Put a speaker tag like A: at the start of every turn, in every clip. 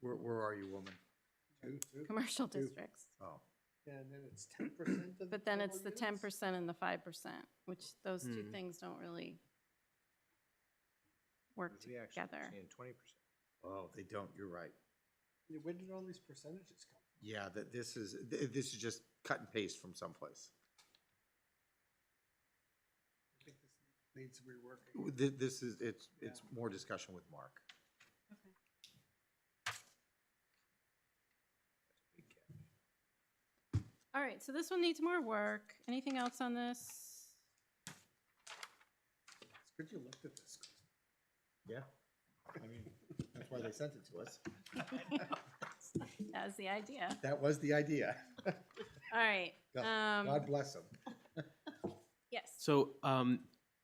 A: Where, where are you, woman?
B: commercial districts.
A: Oh,
C: Yeah, and then it's ten percent of the.
B: But then it's the
C: total
B: ten
C: units?
B: percent and the five percent, which those two
D: Hmm.
B: things don't really work
D: We actually
B: together.
D: saying 20%.
A: oh, they don't, you're right.
C: Yeah, Where did all these percentages come?
A: Yeah, that this is, th- this is just cut and paste from someplace.
C: from? I think this needs reworking.
A: Th- This is, it's, it's more discussion with Mark.
B: All right, so this one needs more work. Anything else on this?
C: It's good you looked at this. 'cause
A: Yeah. I mean, that's why they sent it to us.
B: That was the idea.
A: That was the idea.
B: All right,
A: God-
B: um,
A: God bless them.
B: yes.
E: So, um,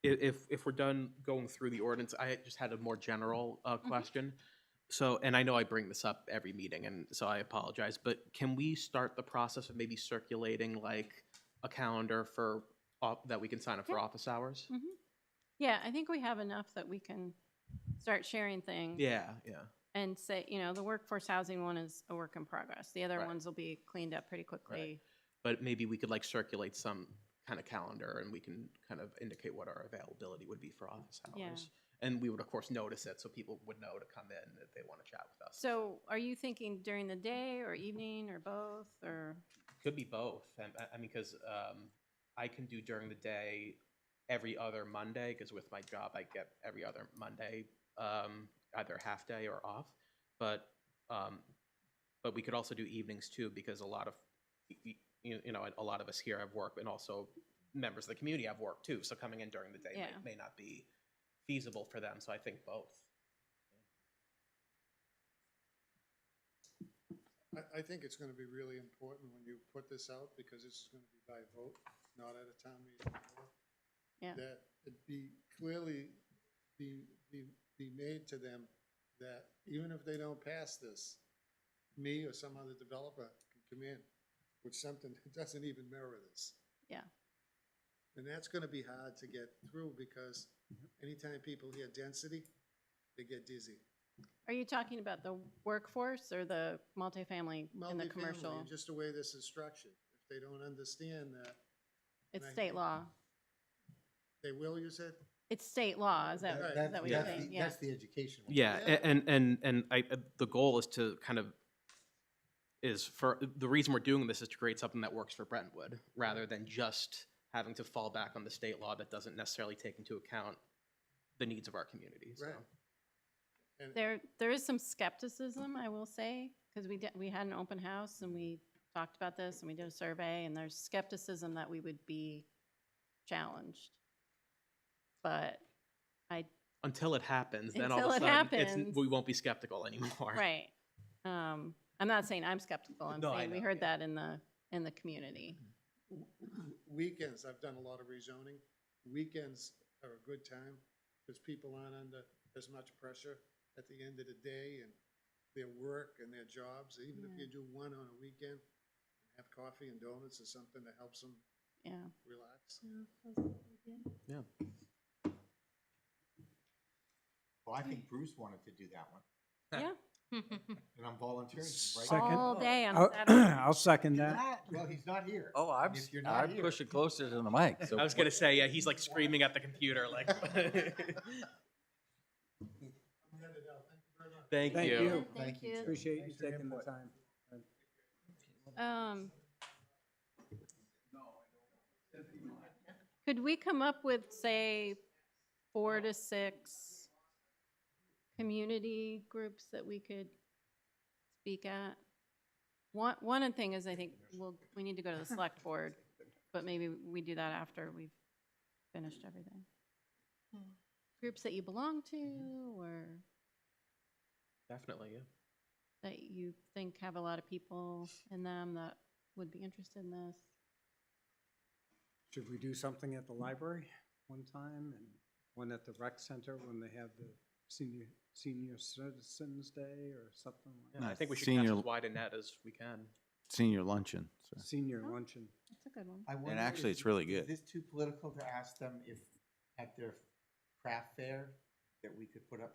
E: i- if, if we're done going through the ordinance, I just had a more general, uh,
B: Mm-hmm.
E: question. So, and I know I bring this up every meeting, and so I apologize, but can we start the process of maybe circulating like a calendar for, op- that we can sign up for
B: Yeah.
E: office hours?
B: Mhm. Yeah, I think we have enough that we can start sharing things.
E: Yeah, yeah.
B: And say, you know, the workforce housing one is a work in progress. The other
E: Right.
B: ones will be cleaned up pretty quickly.
E: But maybe we could like circulate some kind of calendar and we can kind of indicate what our availability would be for office
B: Yeah.
E: hours. And we would of course notice it so people would know to come in if they want to chat with us.
B: So are you thinking during the day or evening or both or?
E: Could be both. I, I- I mean, because um, I can do during the day every other Monday, because with my job, I get every other Monday, um, either half day or off. But, um, but we could also do evenings too, because a lot of, y- y- you, you know, a lot of us here have work and also members of the community have work too. So coming in during the day
B: Yeah.
E: might, may not be feasible for them. So I think both.
F: I, I think it's gonna be really important when you put this out, because it's gonna be by vote, not at a town meeting. floor,
B: Yeah.
F: That it be clearly, be, be, be made to them that even if they don't pass this, me or some other developer can come in with something that doesn't even mirror this.
B: Yeah.
F: And that's gonna be hard to get through, because anytime people hear density, they get dizzy.
B: Are you talking about the workforce or the multifamily and the
F: Multifamily,
B: commercial?
F: and Just the way this is structured. If they don't understand that,
B: It's
F: I-
B: state law.
F: they will use it.
B: It's state law, is that,
F: That-
B: is that what you're
A: that's
B: saying?
A: the-
B: Yeah.
A: That's the education. one.
E: Yeah,
F: Yeah.
E: a- and and and I uh, the goal is to kind of is for the reason we're doing this is to create something that works for Brentwood rather than just having to fall back on the state law that doesn't necessarily take into account the needs of our community. So.
F: Right. And
B: There, there is some skepticism, I will say, because we did, we had an open house and we talked about this and we did a survey and there's skepticism that we would be challenged. But,
E: Until it happens, then all
B: Until it
E: of a sudden
B: happens.
E: It's, we won't be skeptical anymore.
B: right, um, I'm not saying I'm skeptical, I'm
E: No, I
B: saying we
E: know,
B: heard
E: yeah.
B: that in the, in the community.
F: weekends, I've done a lot of rezoning. Weekends are a good time because people aren't under as much pressure at the end of the day and their work and their jobs. Even if you
B: Yeah.
F: do one on a weekend, have coffee and donuts or something that helps them
B: Yeah,
F: relax.
A: Well, I think Bruce wanted to do that one,
B: yeah,
A: and I'm volunteering, right?
G: Second.
B: all day on
G: I'll
B: Saturday.
G: I'll second that.
A: That- Well, he's not here.
H: Oh, I'm,
A: If you're not
H: I'm
A: here.
H: pushing closer to the mic. So
E: I was gonna say, yeah, he's like screaming at the computer, like.
F: I'm headed out. Thank you very much.
E: Thank,
G: Thank
E: you.
G: you.
A: Thank you. too.
G: Appreciate you
A: Thanks for your
G: taking the
A: input.
G: time.
B: Um, Could we come up with, say, four to six community groups that we could speak at? One, one of the thing is, I think, we'll, we need to go to the select board, but maybe we do that after we've finished everything. Groups that you belong to, or
E: Definitely, yeah.
B: that you think have a lot of people in them that would be interested in this?
G: Should we do something at the library one time and one at the rec center when they have the senior, senior citizens day or something like
E: Yeah, I
H: Nice.
E: think we should
H: Senior-
E: cast as wide a net as we can.
H: senior luncheon. so.
G: that? Senior luncheon.
B: That's a good one.
A: I wonder
H: actually,
A: is-
H: it's really
A: is
H: good.
A: this too political to ask them if at their craft fair that we could put up